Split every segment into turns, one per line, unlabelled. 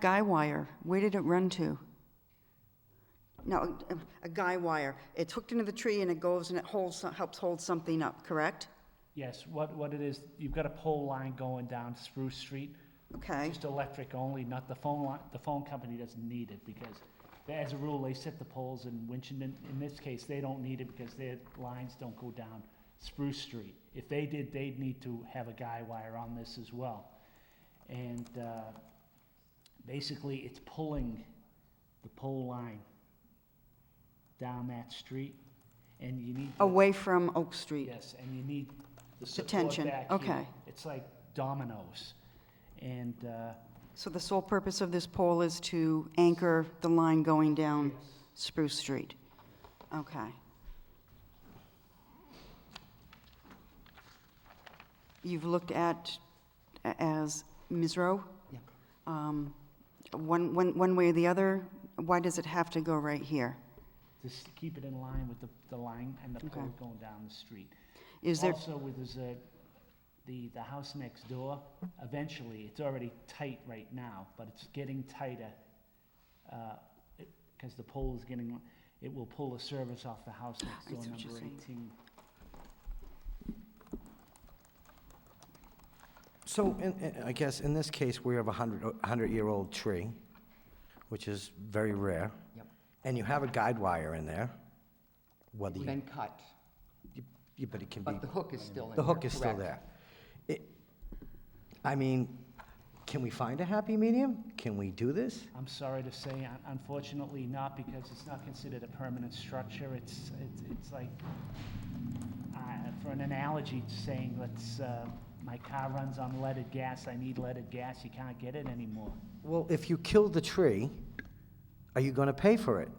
Guy wire, where did it run to? No, a- a guy wire. It's hooked into the tree and it goes and it holds, helps hold something up, correct?
Yes, what, what it is, you've got a pole line going down Spruce Street,
Okay,
just electric only, not the phone line, the phone company doesn't need it because as a rule, they set the poles in Winchendon, in this case, they don't need it because their lines don't go down Spruce Street. If they did, they'd need to have a guy wire on this as well. And, uh, basically, it's pulling the pole line down that street and you need. to-
away from Oak Street.
Yes, and you need the support
tension,
back
okay.
here. It's like dominoes. And, uh,
So the sole purpose of this pole is to anchor the line going down Spruce Street? Okay. You've looked at, a- as Ms. Rowe?
Yeah.
Um, One, one, one way or the other, why does it have to go right here?
just keep it in line with the, the line and the
Okay.
pole going down the street.
Is there,
Also, with this, uh, the, the house next door, eventually, it's already tight right now, but it's getting tighter. Because the pole is getting, it will pull the service off the house next
I
door,
see what you're
number
saying.
eighteen.
So, in- in- I guess in this case, we have a 100-year-old tree, which is very rare.
Yep.
And you have a guide wire in there, whether
It's
you,
been cut,
you- you- but it can be,
but the hook is still in there.
the hook is still
correct?
there. It- I mean, can we find a happy medium? Can we do this?
I'm sorry to say, un- unfortunately not, because it's not considered a permanent structure. It's, it's, it's like, uh, for an analogy, it's saying, let's, uh, my car runs on leaded gas, I need leaded gas, you can't get it anymore.
Well, if you kill the tree, are you going to pay for it?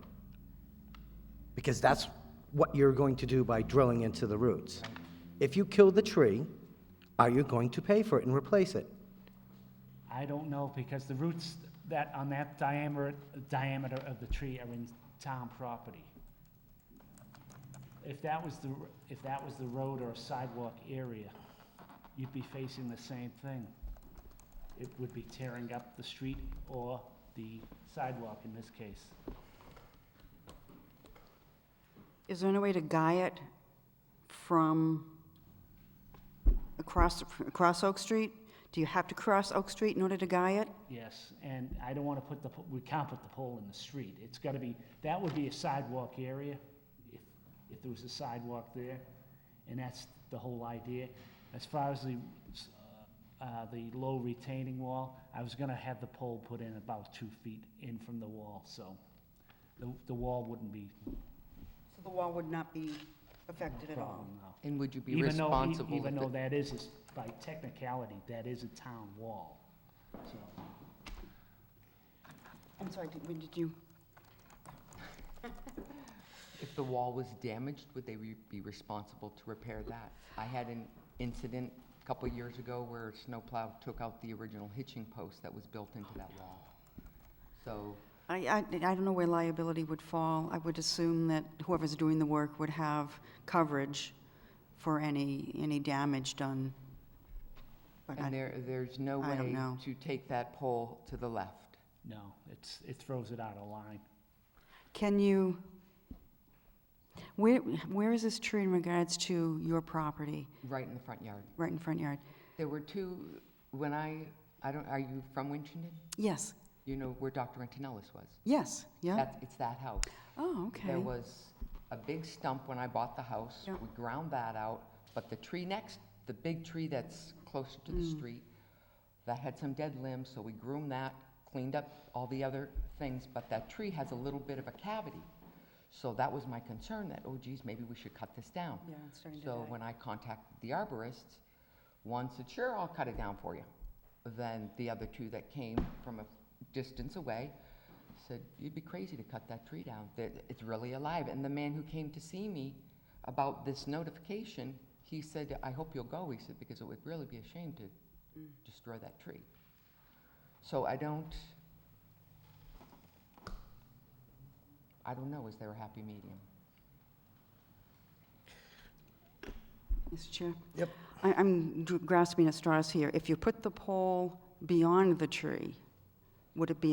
Because that's what you're going to do by drilling into the roots. If you kill the tree, are you going to pay for it and replace it?
I don't know, because the roots that, on that diameter, diameter of the tree are in town property. If that was the, r- if that was the road or sidewalk area, you'd be facing the same thing. It would be tearing up the street or the sidewalk in this case.
is there any way to guy it from across, across Oak Street? Do you have to cross Oak Street in order to guy it?
Yes, and I don't wanna put the, po- we can't put the pole in the street. It's gotta be, that would be a sidewalk area, if, if there was a sidewalk there, and that's the whole idea. As far as the, s- uh, the low retaining wall, I was gonna have the pole put in about two feet in from the wall, so the, the wall wouldn't be
So the wall would not be affected
a
at all?
problem now.
And would you be
Even though, e-
responsible?
even
if
though
it-
that is, is by technicality, that is a town wall, so.
I'm sorry, did, when did you,
If the wall was damaged, would they re- be responsible to repair that? I had an incident a couple of years ago where a snowplow took out the original hitching post that was built into that wall. So,
I, I, I don't know where liability would fall. I would assume that whoever's doing the work would have coverage for any, any damage done. But
and
I,
there, there's no
I don't
way
know.
to take that pole to the left.
No, it's, it throws it out of line.
can you, where, where is this tree in regards to your property,
Right in the front yard.
right in front yard?
There were two, when I, I don't, are you from Winchendon?
Yes,
You know where Dr. Antonellis was?
yes, yeah?
That's, it's that house.
Oh, okay.
There was a big stump when I bought the house.
Yeah.
We ground that out, but the tree next, the big tree that's closer to the
Mm.
street, that had some dead limbs, so we groomed that, cleaned up all the other things, but that tree has a little bit of a cavity. So that was my concern, that, oh geez, maybe we should cut this down.
Yeah, it's starting to
So
die.
when I contacted the arborists, one said, sure, I'll cut it down for you. Then the other two that came from a distance away said, you'd be crazy to cut that tree down. That It's really alive. And the man who came to see me about this notification, he said, I hope you'll go. He said, because it would really be a shame to destroy that tree. So I don't, I don't know, is there a happy medium?
Mr. Chair?
Yep.
I- I'm dr- grasping at straws here. If you put the pole beyond the tree, would it be